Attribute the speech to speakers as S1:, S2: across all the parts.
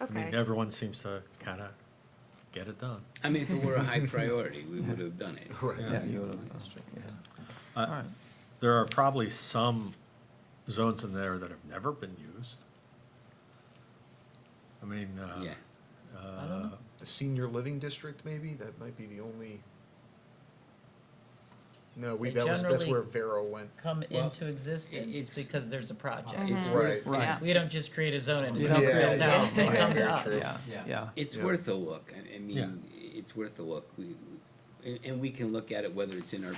S1: I mean,
S2: Okay.
S1: everyone seems to kind of get it done.
S3: I mean, if it were a high priority, we would have done it.
S4: Yeah, you would have, yeah. All right,
S1: Uh, There are probably some zones in there that have never been used. I mean, uh,
S3: Yeah.
S1: uh,
S5: The senior living district, maybe, that might be the only. No, we,
S6: They
S5: that was, that's
S6: generally-
S5: where Vero went,
S6: come
S3: Well,
S6: into
S3: it's-
S6: existence because there's a
S4: Uh-huh.
S6: project.
S3: It's
S5: right,
S3: worth,
S4: right,
S6: We don't just create a zone and it's
S4: Yeah,
S6: not
S4: yeah,
S6: built out,
S5: yeah,
S6: they come to
S5: very
S6: us.
S5: true.
S4: yeah, yeah.
S3: it's
S5: Yeah.
S3: worth a look. I, I
S1: Yeah.
S3: mean, it's worth a look. We, we- and, and we can look at it whether it's in our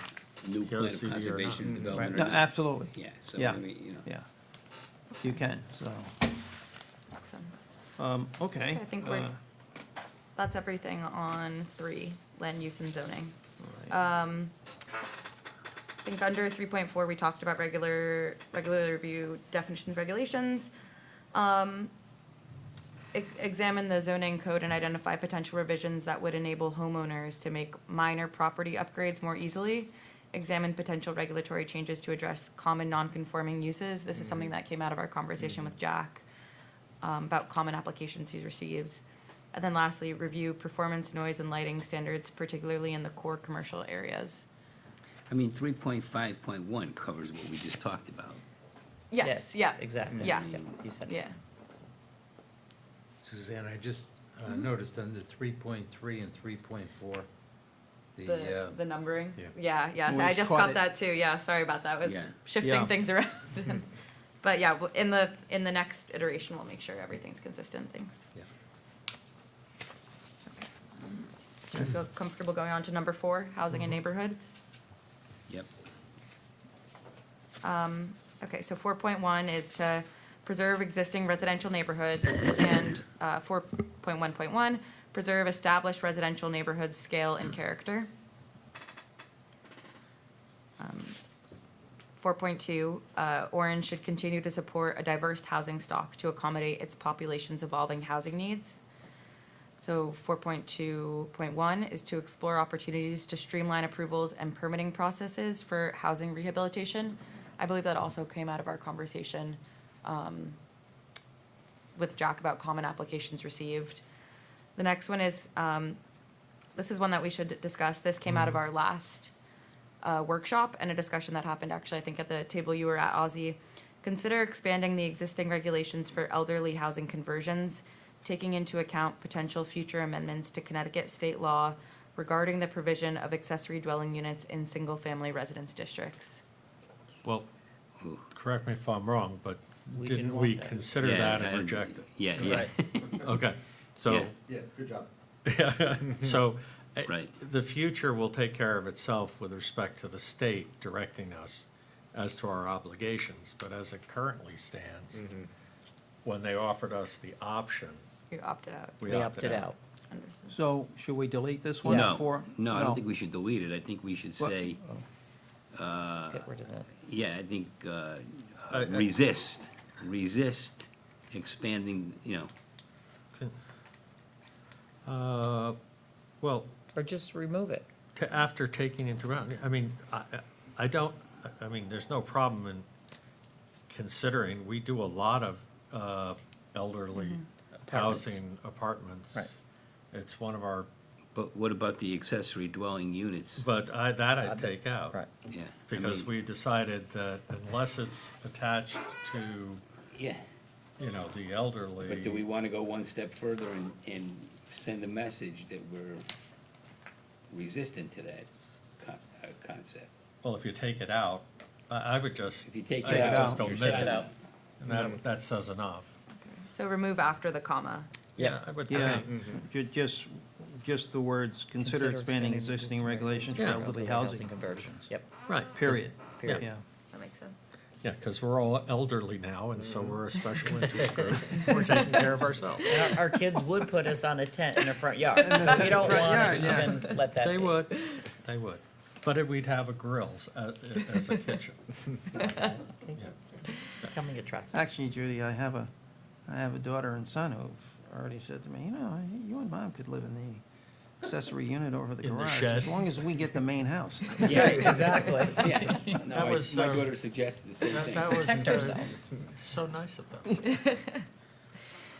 S3: new
S1: Go
S3: plan of
S1: CD or not.
S3: conservation
S1: Mhm.
S3: development
S4: No,
S3: or not.
S4: absolutely,
S3: Yeah, so,
S4: yeah,
S3: I mean, you know.
S4: yeah. You can, so,
S2: Makes sense.
S4: um, okay.
S2: I think we're-
S4: uh,
S2: That's everything on three, land use and zoning.
S4: all right.
S2: uh, I think under three point four, we talked about regular, regular review definitions, regulations. Um, ex- Examine the zoning code and identify potential revisions that would enable homeowners to make minor property upgrades more easily. Examine potential regulatory changes to address common non-conforming uses. This is something that came out of our conversation with Jack um, about common applications he receives. And then lastly, review performance, noise, and lighting standards, particularly in the core commercial areas.
S3: I mean, three point five point one covers what we just talked about.
S2: Yes, yeah.
S6: Exactly.
S2: Yeah.
S6: You said it.
S2: Yeah.
S7: Suzanne, I just uh,
S8: Mm-hmm.
S7: noticed under three point three and three point four, the,
S2: The,
S7: uh,
S2: the numbering?
S7: yeah.
S2: Yeah, yeah, so
S4: We
S2: I just
S4: caught
S2: caught
S4: it.
S2: that too, yeah, sorry about that, was
S3: Yeah.
S4: Yeah.
S2: shifting things around. But yeah, w- in the, in the next iteration, we'll make sure everything's consistent, things.
S7: yeah.
S2: um, Do you feel comfortable going on to number four, housing
S4: Mm-hmm.
S2: and neighborhoods?
S3: Yep.
S2: Okay, so four point one is to preserve existing residential neighborhoods, and, uh, four point one point one, preserve established residential neighborhoods' scale and character. Um, Four point two, uh, Orange should continue to support a diverse housing stock to accommodate its population's evolving housing needs. So four point two point one is to explore opportunities to streamline approvals and permitting processes for housing rehabilitation. I believe that also came out of our conversation, um, with Jack about common applications received. The next one is, um, this is one that we should discuss. This came out of our last, uh, workshop and a discussion that happened actually, I think at the table you were at, Ozzy. Consider expanding the existing regulations for elderly housing conversions, taking into account potential future amendments to Connecticut state law regarding the provision of accessory dwelling units in single-family residence districts.
S1: well, correct me if I'm wrong, but
S6: We didn't
S1: didn't
S6: want
S1: we
S6: that.
S1: consider
S3: Yeah,
S1: that and
S3: I-
S1: reject it?
S3: Yeah, yeah,
S1: Okay, so,
S3: Yeah.
S8: Yeah, good job.
S1: so. eh,
S3: Right.
S1: The future will take care of itself with respect to the state directing us as to our obligations, but as it currently stands,
S6: Mm-hmm.
S1: when they offered us the option,
S2: You opted out.
S1: we
S6: They opted out.
S2: Understood.
S4: So, should we delete this one
S3: no,
S4: before?
S3: no, I don't think we should delete it. I think we should
S4: What-
S3: say,
S6: Get rid of that.
S3: yeah, I think, uh,
S1: I- I-
S3: resist, resist expanding, you know,
S1: Uh, Well,
S6: Or just remove it.
S1: to, after taking into account, I mean, I, I- I don't, I- I mean, there's no problem in considering, we do a lot of uh, elderly
S6: Apartments.
S1: housing apartments. It's one of our,
S3: but what about the accessory dwelling units?
S1: but I, that I'd take out.
S6: Right.
S3: Yeah. I
S1: Because
S3: mean,
S1: we decided that unless it's attached to,
S3: Yeah.
S1: you know, the elderly.
S3: But do we want to go one step further and, and send a message that we're resistant to that con- uh, concept?
S1: Well, if you take it out, I, I would just,
S3: If you Mm-hmm. take
S1: I
S3: it
S1: would
S3: out,
S1: just
S3: you're
S1: omit
S3: shut
S1: it.
S3: out.
S1: And that, that says enough.
S2: So remove after the comma.
S6: Yeah.
S1: I would
S4: Yeah,
S1: think.
S4: ju- just, just the words, Mm-hmm. consider expanding existing regulations for
S1: Yeah.
S4: elderly housing,
S6: Conversions, yep.
S1: Right.
S4: period,
S6: Period.
S4: yeah.
S2: That makes sense.
S1: Yeah, because we're all elderly now, and so we're a special interest group. We're taking care of ourselves.
S6: And Our, our kids would put us on a tent in the front yard, so we don't
S4: front
S6: want
S4: yard, yeah.
S6: to even let that be.
S1: They would, they would. But it- we'd have a grills a- as a kitchen.
S6: Okay. Becoming attractive.
S4: Actually, Judy, I have a, I have a daughter and son who've already said to me, you know, you and mom could live in the accessory unit over the
S1: In the
S4: garage,
S1: shed.
S4: as long as we get the main house.
S6: Yeah, exactly.
S3: Yeah, no,
S1: That
S3: I-
S1: was,
S3: my
S1: um,
S3: daughter suggested the same
S1: That
S3: thing.
S1: that was
S6: Protect
S1: uh,
S6: ourselves.
S1: So nice of them.